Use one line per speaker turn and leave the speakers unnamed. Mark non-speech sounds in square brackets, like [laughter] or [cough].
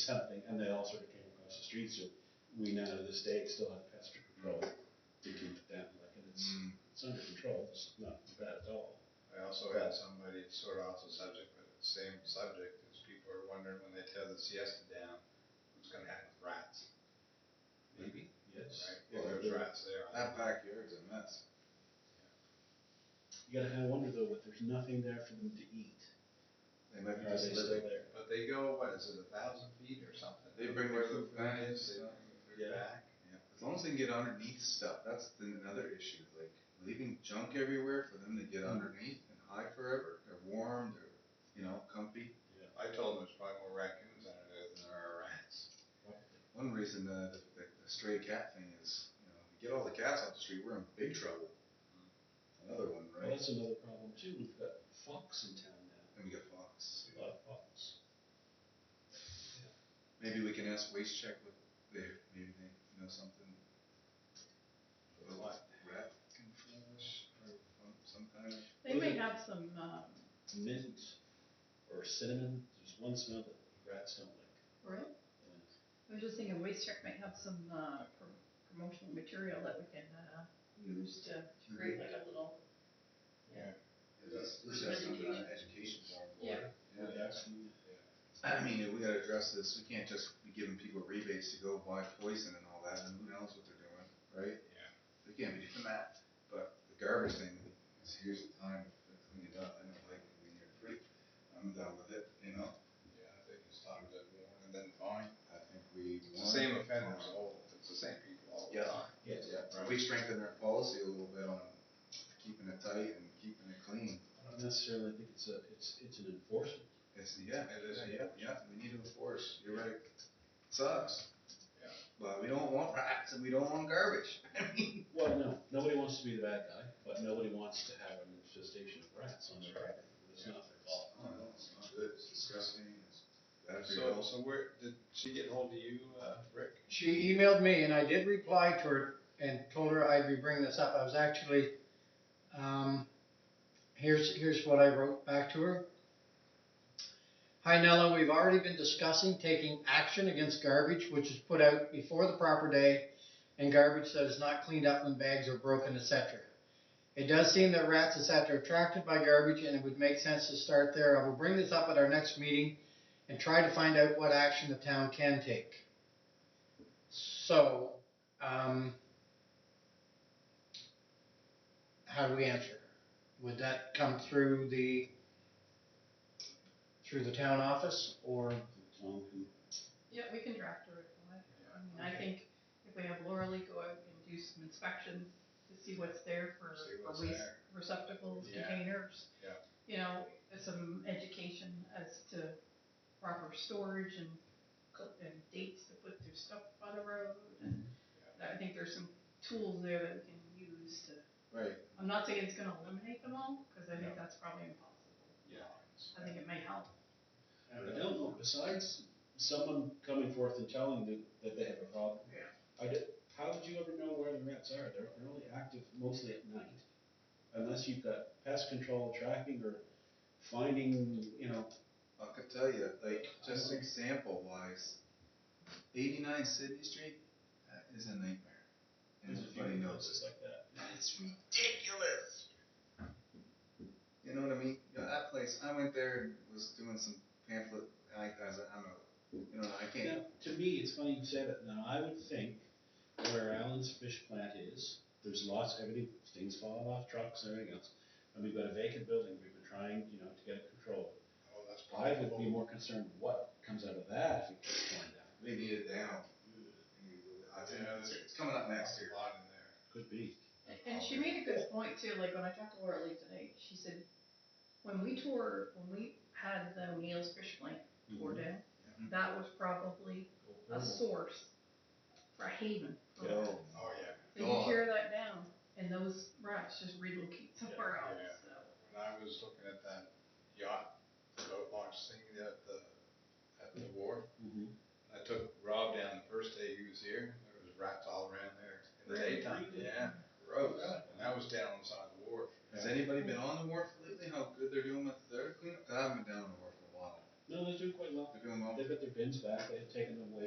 it's happening, and they all sort of came across the street, so we now to this day still have pest control to keep it down, like, and it's, it's under control, it's not bad at all.
I also had somebody sort of off the subject, but the same subject, is people are wondering when they tear the siesta down, what's gonna happen with rats,
Maybe, yes.
right?
Yeah,
Well, there's
they're-
rats there.
That backyard's a mess.
You gotta kinda wonder though, if there's nothing there for them to eat,
They might
are they
be just
still
living.
there?
But they go, what is it, a thousand feet or something?
They bring their food
bags,
bags,
They
uh,
bring their food
yeah.
back.
Yeah, as long as they can get underneath stuff, that's the, another issue. Like leaving junk everywhere for them to get underneath and hide forever. They're warm. They're you know comfy.
I told them there's probably more raccoons under there than there are rats.
One reason uh, the, the, the stray cat thing is, you know, if you get all the cats off the street, we're in big trouble. Another one,
Well,
right?
that's another problem too, we've got fox in town now,
And we got foxes.
a lot of fox.
Maybe we can ask Waste Check what they maybe they know something.
With
about
what?
Rat control or some kind of.
They might have some, um,
Mint or cinnamon, there's one smell that rats don't like.
right? I was just thinking Waste Check might have some, uh, pro- promotional material that we can, uh, use to to create like a little,
This this has some kind of education form for it.
Yeah, that's-
I mean, we gotta address this, we can't just be giving people rebates to go buy poison and all that, and who knows what they're doing, right?
Yeah.
We can't be doing that, but the garbage thing, is here's the time to clean it up, I don't like it when you're free, I'm done with it, you know?
Yeah, I think it's time to warn and then fine.
I think we.
It's the same offenders, all, it's the same people all the
Yeah.
time.
Yes.
Yeah, we strengthened our policy a little bit on keeping it tight and keeping it clean,
I don't necessarily think it's a, it's, it's an enforcement.
it's, yeah,
It is.
yeah, yeah, we need to enforce, you're right, sucks.
Yeah.
But we don't want rats and we don't want garbage, [laughs] I mean.
Well, no, nobody wants to be the bad guy, but nobody wants to have an infestation of rats on their
That's right.
property. It's not their fault.
Oh, no, it's not good, it's disgusting, it's bad for your
So,
health.
so where, did she get hold of you, uh, Rick?
She emailed me and I did reply to her and told her I'd be bringing this up. I was actually, um, here's, here's what I wrote back to her. Hi Nella, we've already been discussing taking action against garbage which is put out before the proper day and garbage that is not cleaned up when bags are broken, etc. It does seem that rats, etc. are attracted by garbage and it would make sense to start there. I will bring this up at our next meeting and try to find out what action the town can take. So, um, how do we answer? Would that come through the, through the town office or?
Tom can
yeah, we can draft a reply. I mean, I think if we have Laura Lee go out and do some inspections to see what's there for,
See
for
what's
waste
there.
receptacles,
Yeah.
containers.
Yeah.
You know, some education as to proper storage and, co- and dates to put their stuff on the road and I think there's some tools there that we can use to
Right,
I'm not saying it's gonna eliminate them all, because I think that's probably impossible.
Yeah.
I think it may help.
I don't know, besides someone coming forth and telling them that they have a problem.
Yeah.
I did, how would you ever know where the rats are? They're, they're only active mostly at night. Unless you've got pest control tracking or finding, you know,
I could tell you, like, just example wise, eighty-nine Sydney Street, that is a nightmare. And
there's a few
everybody knows
notices
it.
like that.
It's ridiculous. You know what I mean? You know, that place, I went there and was doing some pamphlet, and I, I was like, I don't know, you know, I can't,
Now, to me, it's funny you say that. Now, I would think where Alan's fish plant is, there's lots, everything, things falling off trucks and everything else. And we've got a vacant building, we've been trying, you know, to get it controlled.
Oh, that's
I
probably.
would be more concerned what comes out of that if it keeps going down.
they need it down. I think
Yeah,
it's,
there's-
it's coming up next year.
A lot in there.
Could be.
And- And she made a good point too, like when I talked to Laura Lee today, she said, when we tore, when we had the O'Neill's fish plant
Mm-hmm.
tore down, that was probably a source for a haven. for
Yeah.
rats.
Oh, yeah.
So you
God.
tear that down, and those rats just relocate somewhere
Yeah,
else,
yeah.
so.
When I was looking at that yacht boat launch thing at the, at the wharf,
Mhm.
I took Rob down the first day he was here, there was rats all around there in the daytime,
Really?
yeah, gross. And that was down on the side of the wharf.
Has anybody been on the wharf lately? How good they're doing with their cleanup? I haven't been down on the wharf in a while.
No, they're doing quite well.
They're doing well.
They've got their bins back, they've taking them away